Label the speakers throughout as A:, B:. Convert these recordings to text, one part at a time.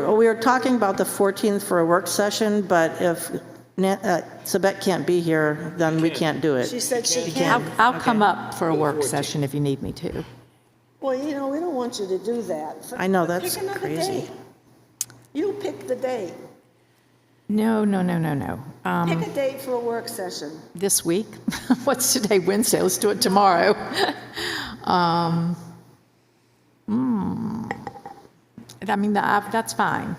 A: were, we were talking about the 14th for a work session, but if Na- uh, Sabette can't be here, then we can't do
B: She
A: it.
B: said she
C: I'll,
B: can.
C: I'll come up for a work session if you need me to.
B: Well, you know, we don't want you to do that.
A: I know,
B: Pick
A: that's
B: another
A: crazy.
B: day. You pick the day.
C: No, no, no, no, no. Um,
B: Pick a date for a work session.
C: This week? What's today, Wednesday? Let's do it tomorrow. Um, hmm. I mean, the- I- that's fine.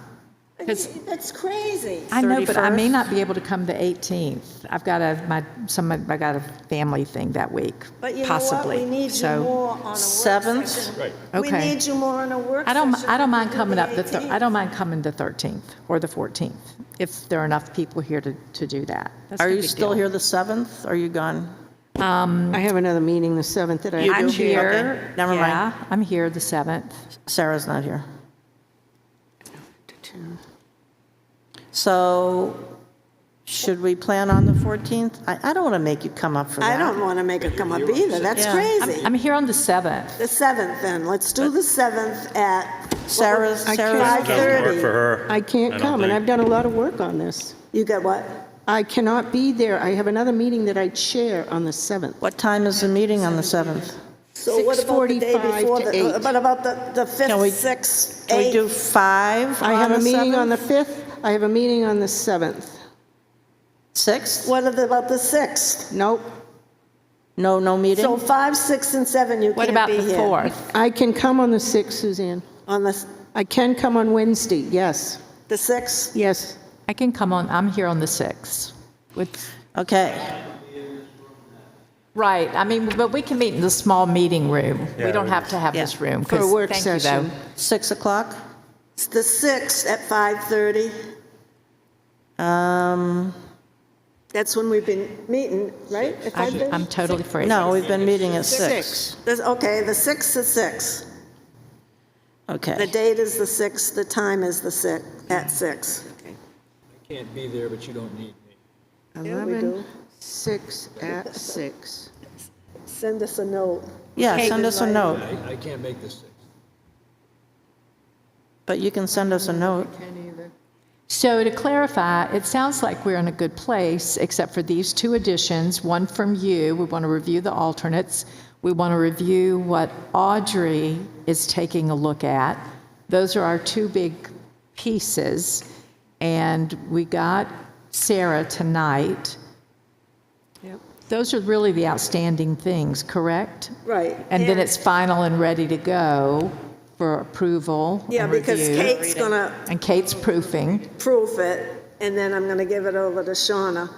C: Because-
B: That's crazy.
C: I know, but I may
A: 31st?
C: not be able to come the 18th. I've got a, my, some, of- I got a family thing that week,
B: But you know what?
C: possibly.
B: We need you
C: So-
B: more on a work
A: Seventh?
B: session.
D: Right.
B: We
C: Okay.
B: need you more on a work
C: I
B: session.
C: don't, I don't
B: than
C: mind
B: we do
C: coming up, the
B: the
C: thir-
B: 18th.
C: I don't mind coming the 13th or the 14th, if there are enough people here to, to do that. That's
A: Are
C: no
A: you
C: big
A: still
C: deal.
A: here the 7th? Are you gone?
E: I have another meeting the 7th that I
C: Um, I'm
E: have to be at.
C: here.
A: never mind.
C: Yeah, I'm here the 7th.
A: Sarah's not here. So should we plan on the 14th? I, I don't want to make you come up for that.
B: I don't want to make it come up either. That's
A: Yeah.
B: crazy.
C: I'm here on the 7th.
B: The 7th then. Let's do the 7th at
A: Sarah's, Sarah's,
E: I can't-
D: Doesn't work
B: 5:30.
D: for her.
E: I
D: I
E: can't
D: don't
E: come, and
D: think-
E: I've done a lot of work on this.
B: You got what?
E: I cannot be there. I have another meeting that I chair on the 7th.
A: what time is the meeting on the 7th?
B: So what about the day
E: 6:45
B: before?
E: to
B: the-
E: eight.
B: What about the, the
A: Can we-
B: 5th, 6th,
A: Can we do
B: 8th?
A: 5
E: I have a
A: on the
E: meeting on the
A: 7th?
E: 5th, I have a meeting on the 7th.
A: 6th?
B: What about the 6th?
E: Nope,
A: No, no meeting?
B: So 5, 6, and 7, you can't be here.
C: What about the 4th?
E: I can come on the 6th, Suzanne.
B: On the, s-
E: I can come on Wednesday, yes,
B: the 6th?
E: yes.
C: I can come on, I'm here on the 6th. With-
A: Okay,
C: Right, I mean, but we can meet in the small meeting room. We
D: Yeah,
C: don't
D: we-
C: have to have this room.
E: For a
C: 'cause-
E: work
C: thank you, though.
E: session.
A: 6 o'clock?
B: It's the 6th at 5:30.
A: Um,
B: That's when we've been meeting, right? At
C: I-
B: 5:30?
C: I'm totally free.
A: No, we've been meeting at 6.
B: There's- Okay, the 6th is 6. The
A: Okay.
B: date is the 6th, the time is the 6, at 6.
F: can't be there, but you don't need me.
E: 11, 6 at 6.
B: Send us a note.
A: Yeah, send us a note,
F: I, I can't make this thing.
A: but you can send us a note.
C: So to clarify, it sounds like we're in a good place, except for these two additions, one from you, we want to review the alternates, we want to review what Audrey is taking a look at. Those are our two big pieces, and we got Sarah tonight. Those are really the outstanding things, correct?
B: Right.
C: And then it's final and ready to go for approval
B: Yeah,
C: and
B: because
C: review.
B: Kate's going to
C: And Kate's proofing.
B: proof it, and then I'm going to give it over to Shauna.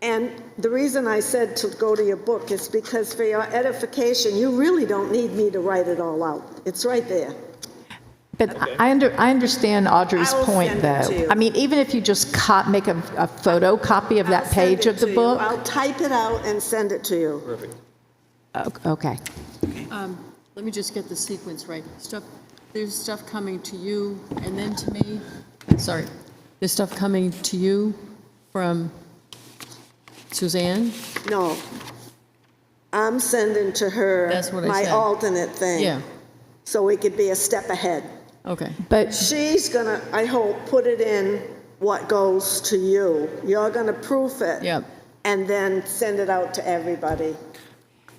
B: And the reason I said to go to your book is because for your edification, you really don't need me to write it all out. It's right there.
C: But I under, I understand Audrey's
B: I will
C: point,
B: send it to
C: though.
B: you.
C: I mean, even if you just co- make a, a photocopy of
B: I'll
C: that
B: send it
C: page of the
B: to you.
C: book.
B: I'll type it out and send it to you.
C: O- Okay.
G: Um, Let me just get the sequence right. Stuff, there's stuff coming to you and then to me, sorry. There's stuff coming to you from Suzanne?
B: No. I'm sending to her
G: That's what I
B: my
G: said.
B: alternate thing.
G: Yeah,
B: So we could be a step ahead.
G: okay.
C: But,
B: She's going to, I hope, put it in what goes to you. You're going to proof it.
G: Yep.
B: And then send it out to everybody.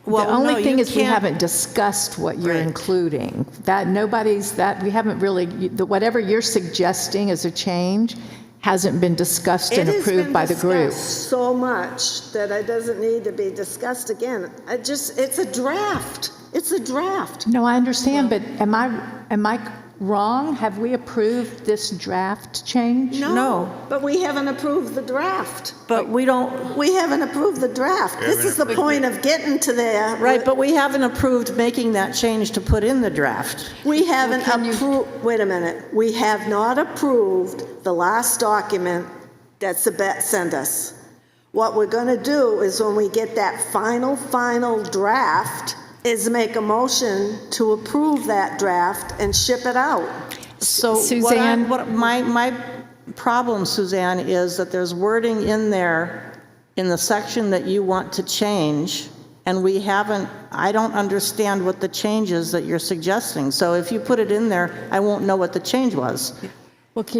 C: the only thing is we
A: haven't.
C: haven't discussed what you're
A: Right.
C: including. That, nobody's, that, we haven't really, you- the- whatever you're suggesting as a change hasn't been discussed and
B: It has
C: approved
B: been
C: by the group.
B: discussed So much that it doesn't need to be discussed again. I just, it's a draft. It's a draft.
C: No, I understand, but am I, am I wrong? Have we approved this draft change?
A: No.
B: But we haven't approved the draft.
A: But we don't,
B: We haven't approved the draft. This is the point of getting to there.
A: right, but we haven't approved making that change to put in the draft.
B: We haven't approved, wait a minute. We have not approved the last document that Sabette sent us. What we're going to do is when we get that final, final draft, is make a motion to approve that draft and ship it out.
A: So what I'm,
C: Suzanne?
A: what, my, my problem, Suzanne, is that there's wording in there in the section that you want to change, and we haven't, I don't understand what the change is that you're suggesting. So if you put it in there, I won't know what the change was.
G: Well, can